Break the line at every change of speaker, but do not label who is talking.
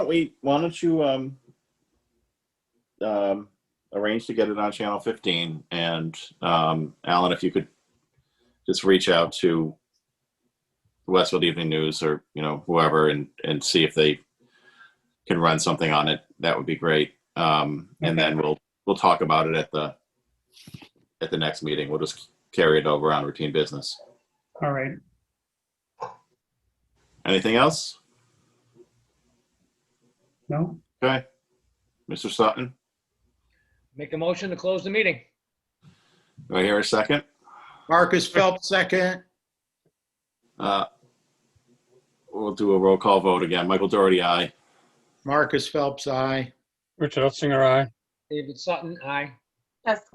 we, why don't you, um, um, arrange to get it on channel fifteen and, um, Alan, if you could just reach out to Westfield Evening News or, you know, whoever and, and see if they can run something on it, that would be great. Um, and then we'll, we'll talk about it at the, at the next meeting. We'll just carry it over on routine business.
All right.
Anything else?
No?
Okay. Mr. Sutton,
Make a motion to close the meeting.
do I hear a second?
Marcus Phelps, second.
Uh, We'll do a roll call vote again. Michael Doherty, aye.
Marcus Phelps, aye.
Richard Ottinger, aye.
David Sutton, aye.
Jessica